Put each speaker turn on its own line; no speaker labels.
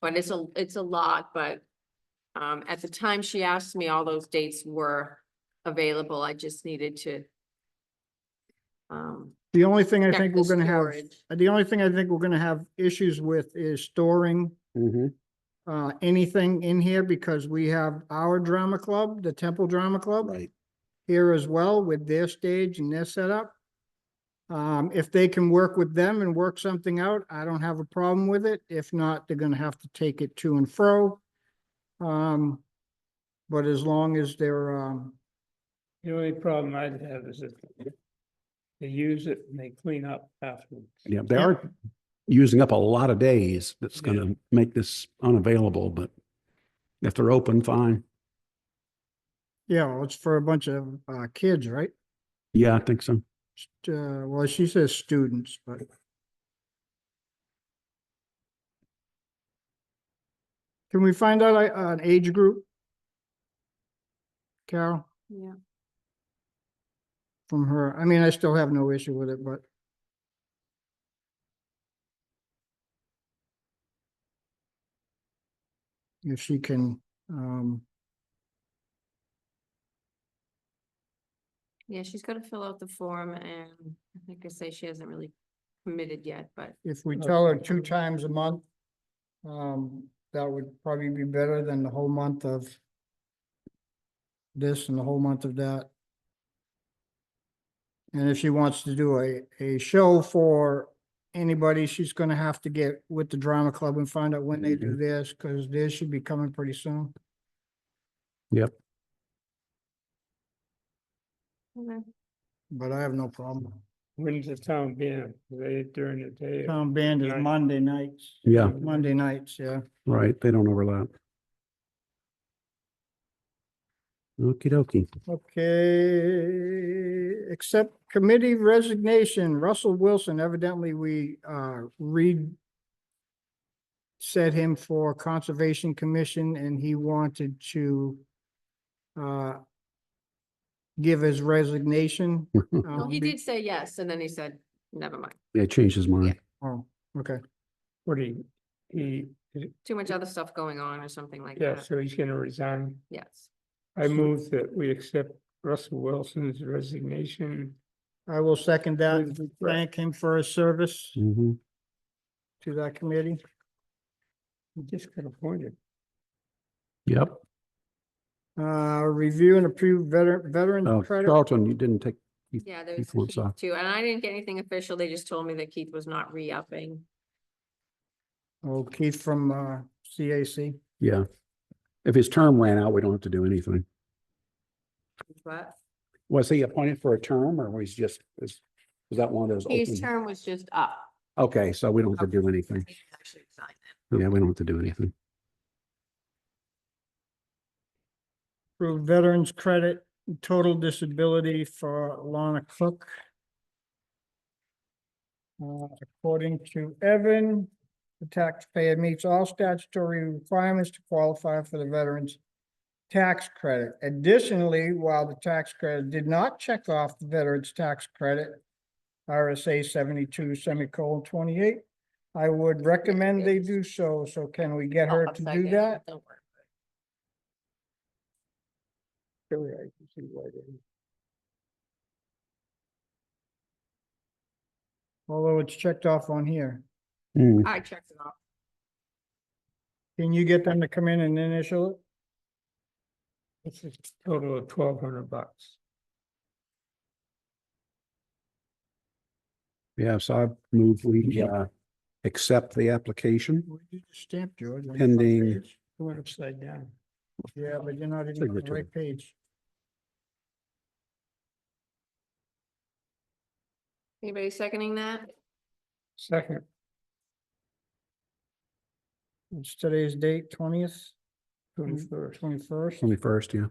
But it's a, it's a lot, but um, at the time she asked me, all those dates were available. I just needed to um,
The only thing I
check
think
the
we're gonna have,
storage.
the only thing I think we're gonna have issues with is storing
Mhm.
uh, anything in here because we have our drama club, the Temple Drama Club
Right.
here as well with their stage and their setup. Um, if they can work with them and work something out, I don't have a problem with it. If not, they're gonna have to take it to and fro. Um, but as long as they're, um,
The only problem I'd have is if they use it and they clean up afterwards.
Yeah, they are using up a lot of days. That's
Yeah.
gonna make this unavailable, but if they're open, fine.
yeah, well, it's for a bunch of, uh, kids, right?
Yeah, I think so.
St- Uh, well, she says students, but can we find out uh, an age group? Carol?
Yeah.
from her. I mean, I still have no issue with it, but. If she can, um,
Yeah, she's gotta fill out the form and I think I say she hasn't really committed yet, but
if we
Okay.
tell her two times a month, um, that would probably be better than the whole month of this and the whole month of that. And if she wants to do a, a show for anybody, she's gonna have to get with the drama club and find out when they do this, cause this should be coming pretty soon.
okay.
But I have no problem.
When's the town being, they during the day? or-
Town band is
Night.
Monday nights,
Yeah,
Monday nights, yeah.
right. They don't overlap. Okey dokey.
Okay, except committee resignation, Russell Wilson, evidently we, uh, re set him for Conservation Commission and he wanted to, uh, give his resignation.
Well,
um,
he
be-
did say yes, and then he said, never mind,
Yeah, changed his mind.
Oh, okay,
What he, he,
too much other stuff going on or something like
yeah,
that.
so he's gonna resign.
Yes.
I move that we accept Russell Wilson's resignation.
I will second that.
with regret.
Thank him for his service
Mhm.
to that committee.
He just got appointed.
Yep.
Uh, review and approve veteran, veteran
Oh,
credit.
Charlton, you didn't take,
Yeah, there
Keith wants
was
off.
Keith too, and I didn't get anything official. They just told me that Keith was not re-upping.
Oh, Keith from, uh, CAC.
yeah. If his term ran out, we don't have to do anything.
But
Was he appointed for a term or was he just, is, is that one of those?
his
open-
term was just up.
Okay, so we don't have to do
He
anything.
didn't actually resign.
Yeah, we don't have to do anything.
Approve veterans credit, and total disability for Lana Cook. Uh, according to Evan, the taxpayer meets all statutory requirements to qualify for the veterans tax credit. Additionally, while the tax credit did not check off the veterans tax credit, RSA seventy-two semicolon twenty-eight, I would recommend they do so. So can we get her
I'll
to
second
do
it,
that?
don't worry.
Really, I can see why they-
Although it's checked off on here.
Mm.
I checked it off.
Can you get them to come in and initial it?
It's a total of twelve hundred bucks.
Yeah, so I move we
Yeah.
uh accept the application.
Where did you stamp, George? On the front
Pending.
page?
It went upside down.
Yeah, but you're not even on the
Signature.
right page.
Anybody seconding that?
Second,
It's today's date, twentieth,
twenty-first.
twenty-first.
Twenty first, yeah.